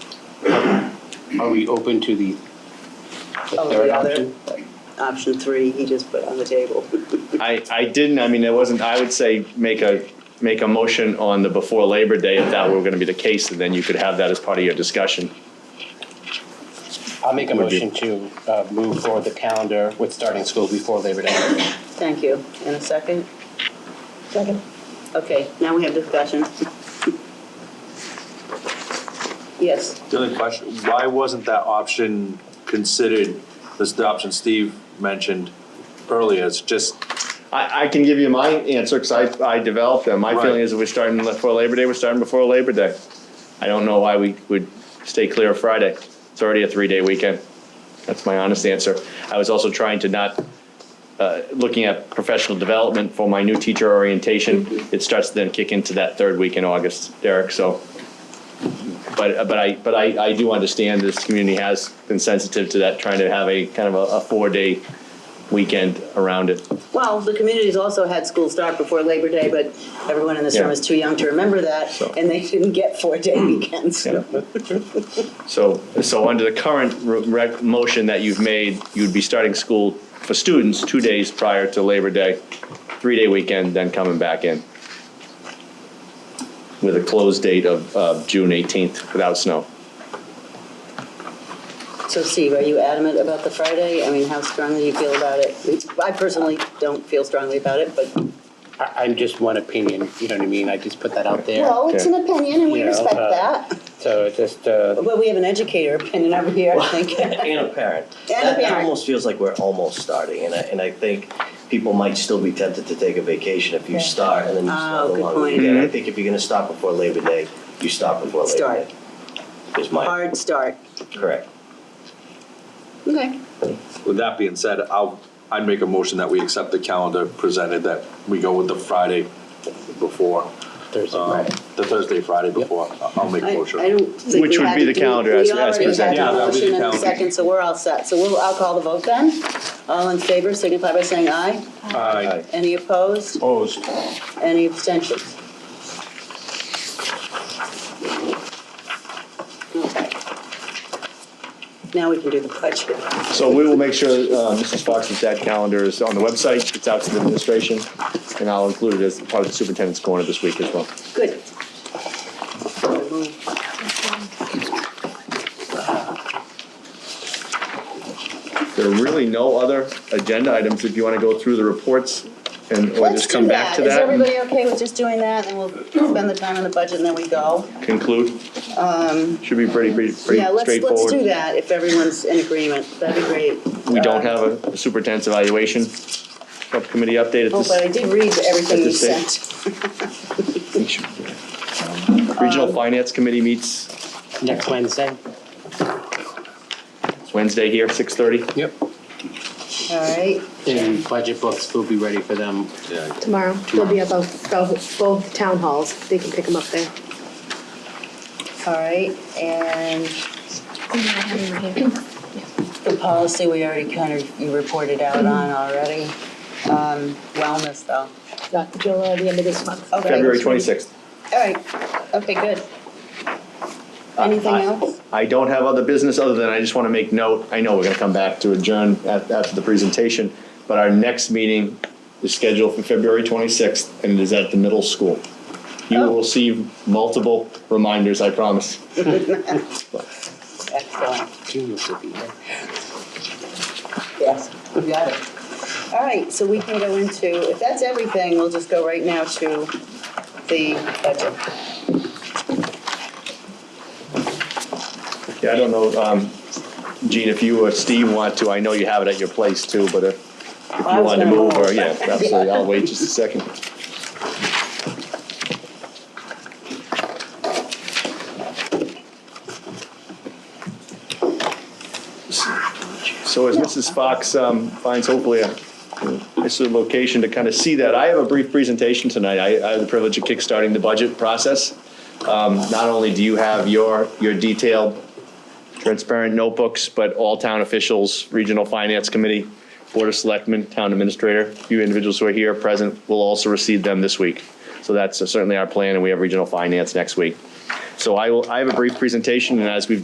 Are we open to the the Oh, third the other, option? option three, he just put on the table. I, I didn't, I mean, it wasn't, I would say make a, make a motion on the before Labor Day if that were gonna be the case, and then you could have that as part of your discussion. I'll make a Would you- motion to uh, move forward the calendar with starting school before Labor Day. Thank you. In a second? Second. Okay, now we have discussion. Yes, The only question, why wasn't that option considered, this the option Steve mentioned earlier, it's just, I, I can give you my answer, because I, I developed them. My feeling Right. is that we're starting before Labor Day, we're starting before Labor Day. I don't know why we would stay clear of Friday. It's already a three-day weekend. That's my honest answer. I was also trying to not, uh, looking at professional development for my new teacher orientation. It starts to then kick into that third week in August, Derek, so. But, but I, but I, I do understand this community has been sensitive to that, trying to have a kind of a, a four-day weekend around it. well, the communities also had school start before Labor Day, but everyone in this room Yeah. is too young to remember that, So- and they didn't get four-day weekends. Yeah. So, so under the current re- rec, motion that you've made, you'd be starting school for students two days prior to Labor Day, three-day weekend, then coming back in. With a close date of, of June eighteenth without snow. So Steve, are you adamant about the Friday? I mean, how strongly you feel about it? It's- I personally don't feel strongly about it, but, I- I'm just one opinion, you know what I mean? I just put that out there. well, it's an opinion, and we Yeah, respect uh, that. So it's just, uh, But we have an educator opinion over here, I think. And a parent. And a That- parent. That almost feels like we're almost starting, and I, and I think people might still be tempted to take a vacation if you start and then you Ah, stop the good long point. weekend. I think if you're gonna stop before Labor Day, you stop before Labor Start. Day. Is my, Hard start. correct. Okay. with that being said, I'll, I'd make a motion that we accept the calendar presented, that we go with the Friday before, Thursday, um, Friday. the Thursday, Friday before, I- I'll make I, I a don't motion. think Which we would had be to the do- calendar as- as presented. We already Yeah, that had would the be the motion and the calendar. second, so we're all set. So we'll, I'll call the vote then. All in favor signify by saying aye. Aye. Any opposed? Oh. Opposed. Any abstentions? Okay. Now we can do the budget. So we will make sure, uh, Mrs. Fox's that calendar is on the website, it's out to the administration, and I'll include it as part of the superintendent's corner this week as well. Good. There are really no other agenda items, if you wanna go through the reports and, or Let's just do come back that. to Is that and everybody okay with just doing that and we'll spend the time on the budget and then we go? conclude. Should be pretty, pretty pretty straightforward. Um, Yeah, let's, let's do that if everyone's in agreement. That'd be great. We don't Uh, have a superintendent's evaluation subcommittee update at Oh, but I this. did read everything at you this stage. sent. Um, Regional Finance Committee meets next Wednesday? Wednesday here, six thirty. Yep. All right, And budget books will be ready for them. Yeah. Tomorrow, they'll be at both, both both town halls, they can pick them up there. all right, and the policy we already kind of, you reported out on already. Um, Wellness, though. Not until uh, the end of this month. Okay. February twenty-sixth. All right, okay, good. Anything else? I don't have other business other than I just want to make note, I know we're going to come back to adjourn at- after the presentation, but our next meeting is scheduled for February 26th, and it is at the middle school. You Oh. will receive multiple reminders, I promise. Excellent, Genius will be here. yes, we got it. All right, so we can go into, if that's everything, we'll just go right now to the budget. Yeah, I don't know, um, Gene, if you or Steve want to, I know you have it at your place too, but if if I you was wanted to gonna move, move. or, yeah, absolutely, I'll wait just a second. So as Mrs. Fox um, finds hopefully a, this is a location to kind of see that, I have a brief presentation tonight. I I have the privilege of kickstarting the budget process. Um, Not only do you have your, your detailed transparent notebooks, but all town officials, regional finance committee, board of selectmen, town administrator, you individuals who are here present will also receive them this week. So that's certainly our plan, and we have regional finance next week. So I will, I have a brief presentation, and as we've